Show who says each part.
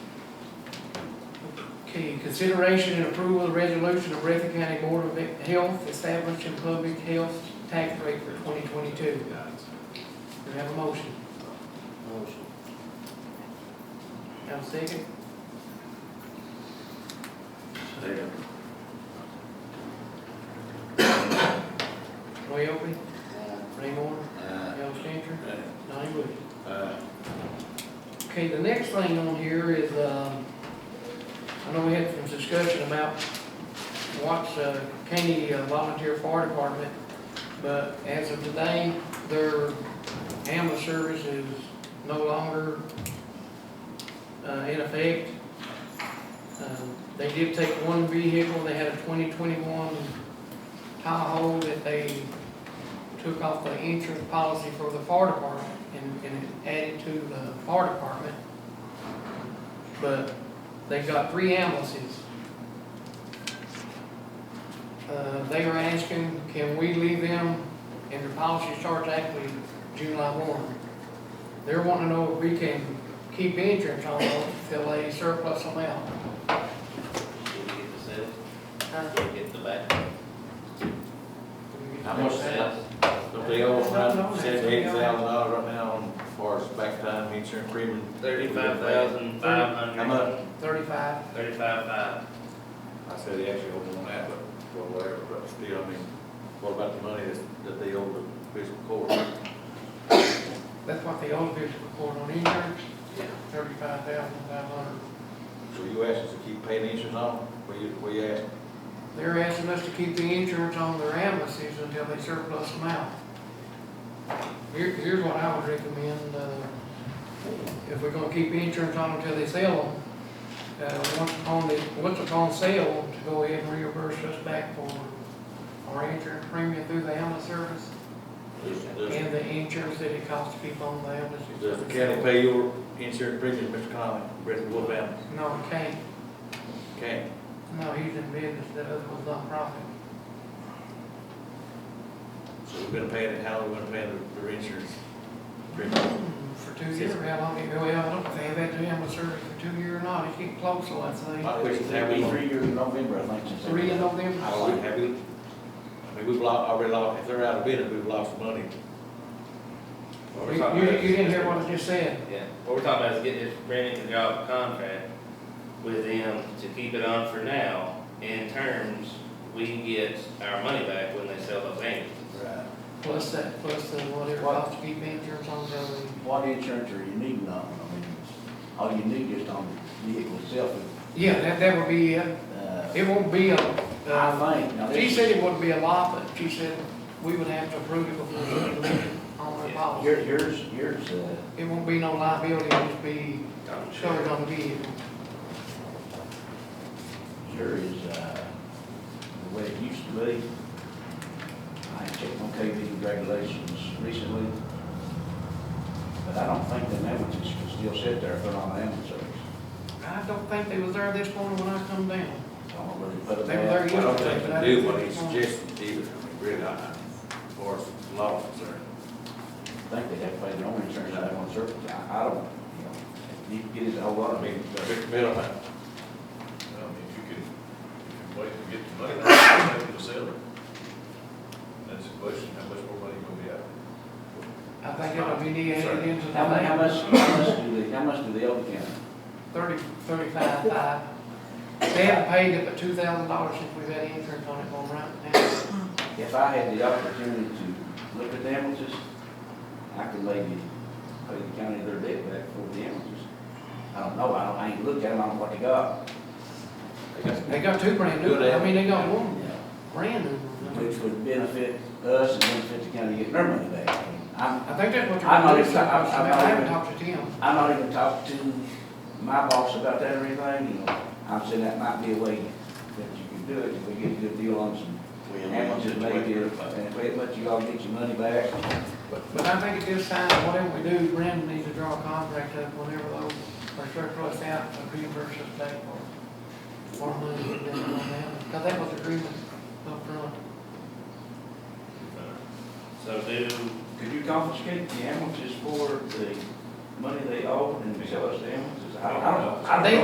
Speaker 1: Okay, consideration and approval of resolution of Breathitt County Board of Health establishing public health tax rate for twenty twenty-two. Do we have a motion?
Speaker 2: Motion.
Speaker 1: Have a second?
Speaker 2: Second.
Speaker 1: Roy Oakley,
Speaker 3: Uh,
Speaker 2: Aye.
Speaker 1: Ray Moore,
Speaker 2: Aye.
Speaker 1: Al Changer,
Speaker 2: Aye.
Speaker 1: Donnie Bush.
Speaker 2: Aye.
Speaker 1: Okay, the next thing on here is, um, I know we had some discussion about Watts uh, County uh, Volunteer Fire Department, but as of today, their ambulance service is no longer uh, in effect. Um, They did take one vehicle, they had a twenty twenty-one Tahoe that they took off the insurance policy for the fire department and, and added to the fire department. But they've got three ambulances. Uh, they were asking, can we leave them, and their policy starts actually July one. They're wanting to know if we can keep insurance on them till they surplus them out.
Speaker 2: Did we get the sales?
Speaker 1: Huh?
Speaker 2: Did we get the back?
Speaker 4: How much sales? Don't they owe around seventy-eight thousand dollars right now on, as far as back time, insurance premium?
Speaker 3: Thirty-five thousand, five hundred.
Speaker 4: How much?
Speaker 1: Thirty-five,
Speaker 3: Thirty-five, five.
Speaker 4: I said they actually owe on that, but, well, whatever, but still, I mean, what about the money that, that they owe the fiscal court?
Speaker 1: that's what they owe this court on insurance,
Speaker 4: Yeah.
Speaker 1: thirty-five thousand five hundred.
Speaker 4: So you asked us to keep paying insurance on, them? what you, what you asked?
Speaker 1: They're asking us to keep the insurance on their ambulances until they surplus them out. Here, here's what I would recommend, uh, if we're gonna keep insurance on until they sell them, uh, once upon the, once upon sale, to go ahead and reimburse us back for our insurance premium through the ambulance service
Speaker 4: Does, does-
Speaker 1: and the insurance that it costs to keep on the ambulances.
Speaker 4: does the county pay your insurance premium, Mr. Conley, Brett Wolf Allen?
Speaker 1: No, it can't.
Speaker 4: Can,
Speaker 1: No, he's in business, that other was nonprofit.
Speaker 4: so we're gonna pay it, how are we gonna pay the, the insurance premium?
Speaker 1: For two years, how long, it- well, I don't know if they have had to have a survey for two years or not, it's getting close, so I'd say.
Speaker 4: My question is, have we,
Speaker 2: Three years in November, I think.
Speaker 1: Three in November.
Speaker 4: I like, have we, I mean, we've lost, already lost, if they're out of business, we've lost money.
Speaker 1: You, you- you didn't hear what I just said,
Speaker 3: Yeah, what we're talking about is getting this Brandon job contract with them to keep it on for now. In terms, we can get our money back when they sell those ambulances.
Speaker 2: Right.
Speaker 1: plus that, plus the whatever
Speaker 2: What?
Speaker 1: cost to keep insurance on the other.
Speaker 2: What insurance are you needing on, I mean, all you need is on the vehicle itself,
Speaker 1: Yeah, that, that would be, it.
Speaker 2: uh,
Speaker 1: it won't be a, uh,
Speaker 2: I think, now
Speaker 1: she
Speaker 2: this,
Speaker 1: said it wouldn't be a lot, but she said we would have to approve it before we leave it on the policy.
Speaker 2: your, yours, yours, uh,
Speaker 1: It won't be no liability, it'll just be
Speaker 3: I'm sure.
Speaker 1: covered on the vehicle.
Speaker 2: Sure is, uh, the way it used to be. I checked on KB regulations recently, but I don't think the ambulances can still sit there if they're on ambulance service.
Speaker 1: I don't think they was there this morning when I come down.
Speaker 2: I don't know where they put them
Speaker 1: They were
Speaker 2: at.
Speaker 1: there
Speaker 4: I
Speaker 1: yesterday.
Speaker 4: don't think
Speaker 1: but I
Speaker 4: they do
Speaker 1: didn't
Speaker 4: what
Speaker 1: think
Speaker 4: he
Speaker 1: it was on.
Speaker 4: suggested either, I mean, really, I, I- as far as law is concerned.
Speaker 2: I think they have to pay their own insurance on ambulance service. I, I don't, you know, you get it a whole lot
Speaker 4: I
Speaker 2: of
Speaker 4: mean,
Speaker 2: meetings.
Speaker 4: the big
Speaker 5: Well,
Speaker 4: middleman.
Speaker 5: I mean, if you can, if you wait to get the money, that's the way to sell it. That's the question, how much more money you gonna be out?
Speaker 1: I think it'll be negated into the.
Speaker 2: How much, how much, how much do they, how much do they owe the county?
Speaker 1: Thirty, thirty-five, five. They haven't paid it but two thousand dollars since we've had insurance on it going right now.
Speaker 2: If I had the opportunity to look at the ambulances, I could maybe pay the county their debt back for the ambulances. I don't know, I don't, I ain't looked at them, I don't know what they got.
Speaker 4: They got
Speaker 1: They got two brand new,
Speaker 4: Good, eh?
Speaker 1: I mean, they got
Speaker 2: you
Speaker 1: one
Speaker 2: know,
Speaker 1: brand new.
Speaker 2: Which would benefit us and benefit the county getting their money back. I mean, I'm,
Speaker 1: I think that's what
Speaker 2: I'm not
Speaker 1: you're doing,
Speaker 2: even- I'm- I'm
Speaker 1: I
Speaker 2: not
Speaker 1: haven't
Speaker 2: even-
Speaker 1: talked to Tim.
Speaker 2: I'm not even talking to my boss about that or anything, you know. I'm saying that might be a way that you can do it, if we get a good deal on some ambulances, maybe, and if it, but you all get your money back.
Speaker 1: But I think at this time, whatever we do, Brandon needs to draw a contract up whenever those are surplus out, to reimburse us back for more money we've been on them. Because that was the agreement up front.
Speaker 4: Uh,
Speaker 3: So do,
Speaker 2: Could you confiscate the ambulances for the money they owe and sell us the ambulances? I I don't know. I don't
Speaker 1: They-
Speaker 2: know.